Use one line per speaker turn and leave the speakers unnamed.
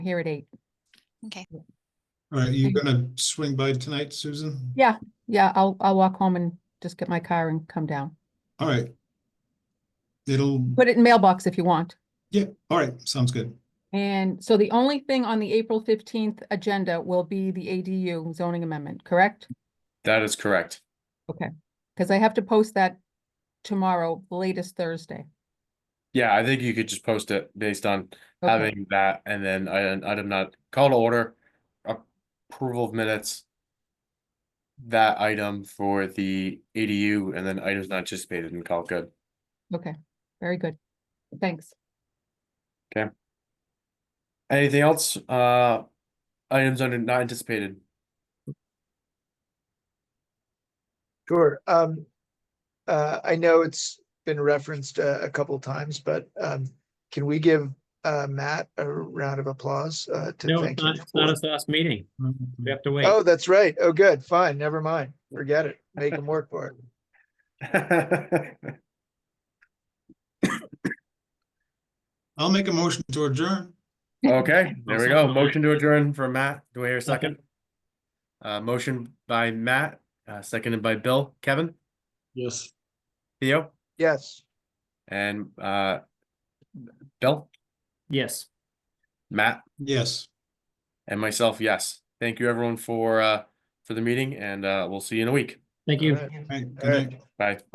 here at eight.
Okay.
All right, you
Okay.
gonna swing by tonight, Susan?
Yeah, yeah, I'll, I'll walk home and just get my car and come down.
All right. It'll,
Put it in mailbox if you want.
yeah, all right, sounds good.
And so the only thing on the April fifteenth agenda will be the ADU zoning amendment, correct?
That is correct.
Because I have to post that tomorrow, latest Thursday.
Yeah, I think you could just post it based on
Okay,
having that and then I, item not call to order. Approval of minutes. That item for the ADU and then items not anticipated and call it good.
okay, very good. Thanks.
Anything else? Uh, items under not anticipated.
Sure. Um, uh, I know it's been referenced uh, a, a couple times, but, um, can we give, uh, Matt a round of applause, uh, to
No, it's
thank him?
not, it's not
for-
his last meeting. We have to wait.
Oh, that's right. Oh, good. Fine. Never mind. Forget it. Make him work for it.
I'll make a motion to adjourn.
Okay, there we
Awesome.
go. Motion to adjourn for Matt. Do I hear a second?
Second.
Uh, motion by Matt, uh, seconded by Bill, Kevin,
Yes.
Theo,
Yes.
and, uh, Bill,
Yes.
Matt.
Yes.
And myself, yes. Thank you everyone for uh for the meeting and uh we'll see you in a week.
Thank you.
All right.
All right, good
All right.
night.
Bye.